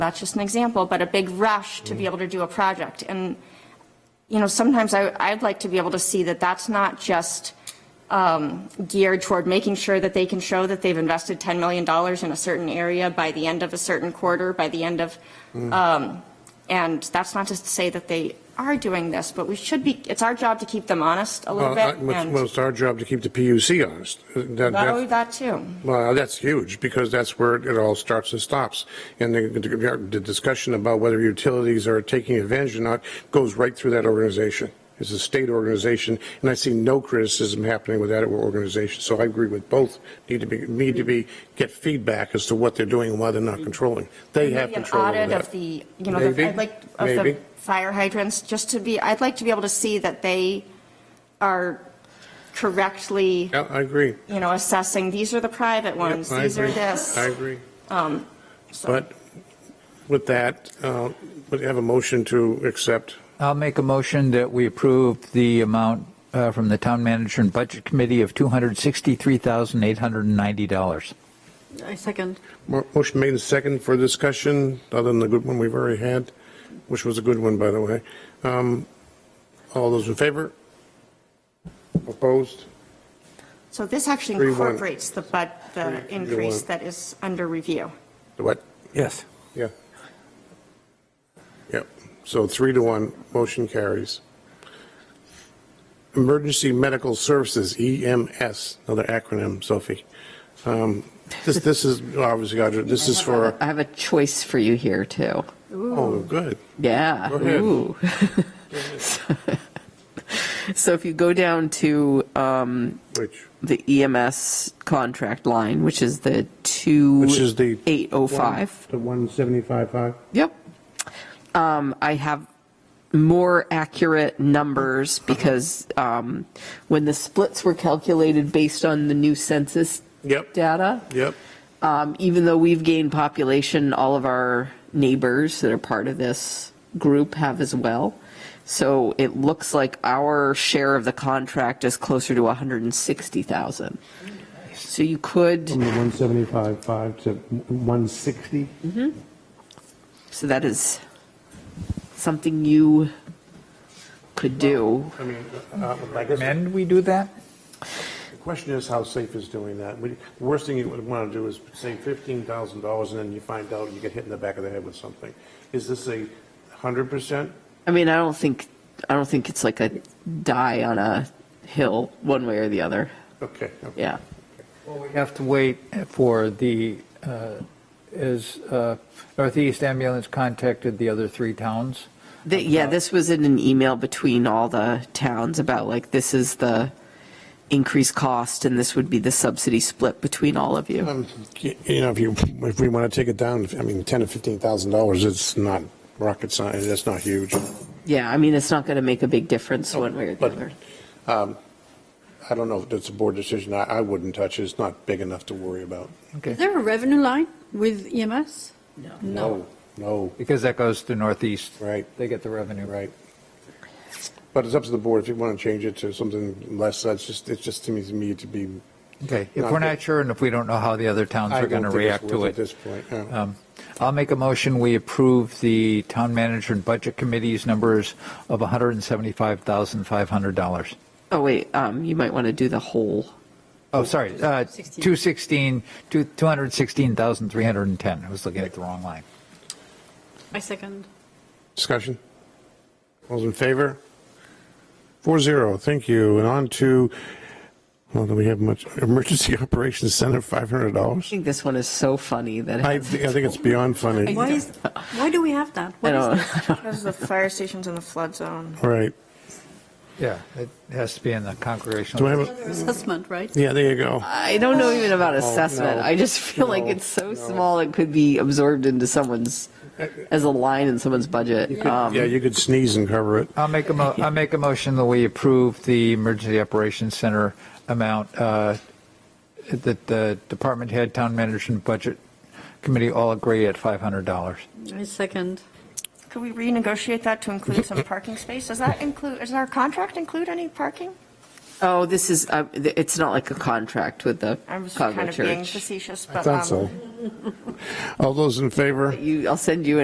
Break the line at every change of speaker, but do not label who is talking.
that's just an example, but a big rush
Mm.
to be able to do a project. And, you know, sometimes I, I'd like to be able to see that that's not just um, geared toward making sure that they can show that they've invested $10 million in a certain area by the end of a certain quarter, by the end of,
Mm.
um, and that's not just to say that they are doing this, but we should be, it's our job to keep them honest a little
Well,
bit.
I- well,
and-
well, it's our job to keep the PUC honest. That-
Not only that,
that-
too.
Well, that's huge, because that's where it all starts and stops. And the- the the discussion about whether utilities are taking advantage or not goes right through that organization. It's a state organization, and I see no criticism happening with that organization. So I agree with both, need to be, need to be, get feedback as to what they're doing and why they're not controlling. They have
Maybe an
control over that.
audit of the, you know, the-
Maybe,
I'd like, of the
maybe.
fire hydrants, just to be, I'd like to be able to see that they are correctly,
Yeah, I agree.
you know, assessing, these are the private ones,
I
these are
agree.
this. Um,
I agree. But with that, uh, would have a motion to accept.
I'll make a motion that we approve the amount uh, from the Town Manager and Budget Committee of $263,890.
I second.
Mo- Motion made and second for discussion, other than the good one we've already had, which was a good one, by the way. Um, All those in favor? Opposed?
So this actually
Three, one.
incorporates the, but, the
Three,
increase
one.
that is under review.
What?
Yes.
Yeah. Yep. So three to one, motion carries. Emergency Medical Services, EMS, another acronym, Sophie. Um, This, this is obviously, Audra, this is for,
I have a choice for you here, too.
oh, good.
Yeah.
Go ahead.
Ooh. So if you go down to um,
Which,
the EMS contract line, which is the 2.
which is the.
805.
The 175.5.
Yep. Um, I have more accurate numbers because um, when the splits were calculated based on the new census
Yep.
data,
Yep.
um, even though we've gained population, all of our neighbors that are part of this group have as well. So it looks like our share of the contract is closer to 160,000. So you could,
the 175.5 to 160.
so that is something you could do.
I mean, uh, I guess the
Recommend we do that?
question is how safe is doing that? We- The worst thing you would want to do is say $15,000 and then you find out you get hit in the back of the head with something. Is this a 100%?
I mean, I don't think, I don't think it's like a die on a hill, one way or the other.
Okay. okay.
Yeah.
Well, we have to wait for the, uh, is uh, Northeast Ambulance contacted the other three towns?
The, yeah, this was in an email between all the towns about like, this is the increased cost and this would be the subsidy split between all of you.
Um, y- You know, if you, if we want to take it down, I mean, 10 to $15,000, it's not rocket science, that's not huge.
Yeah, I mean, it's not going to make a big difference one way or the
oh, But,
other.
um, I don't know if that's a board decision, I, I wouldn't touch it, it's not big enough to worry about.
Okay,
Is there a revenue line with E EMS?
No. No,
because that goes to Northeast.
Right.
They get the revenue.
right. But it's up to the board, if you want to change it to something less, that's just, it just seems to me to be.
Okay, if we're not sure and if we don't know how the other towns
I
are
don't
going to
think it's
react to
worth
it.
At this point, yeah.
Um, I'll make a motion, we approve the town manager and budget committee's numbers of $175,500.
Oh, wait, um, you might want to do the whole.
Oh, sorry, uh, 216, two- 216,310. I was looking at the wrong line.
I second.
Discussion? All's in favor? Four zero, thank you. And on to, well, do we have much, Emergency Operations Center,
I
$500?
think this one is so funny that.
I, I think it's beyond funny,
Why is, why do we have that?
I
What is
don't-
this?
Because the fire station's in the flood zone.
right.
Yeah, it has to be in the
Do I
congregational.
have, a-
Another assessment, right?
yeah, there you go.
I don't know even about
Oh, no,
assessment. I just feel like
no,
it's so
no.
small it could be absorbed into someone's as a line in someone's budget. Um,
Yeah, you could sneeze and cover it.
I'll make a, mo- I'll make a motion that we approve the emergency operations center amount uh, that the department head, town manager, and budget committee all agree at $500.
I second.
Could we renegotiate that to include some parking space? Does that include, does our contract include any parking?
Oh, this is, uh, th- it's not like a contract with the
I was kind
Congo
of being
Church.
facetious, but.
I thought
um,
so. All those in favor?
You, I'll send you an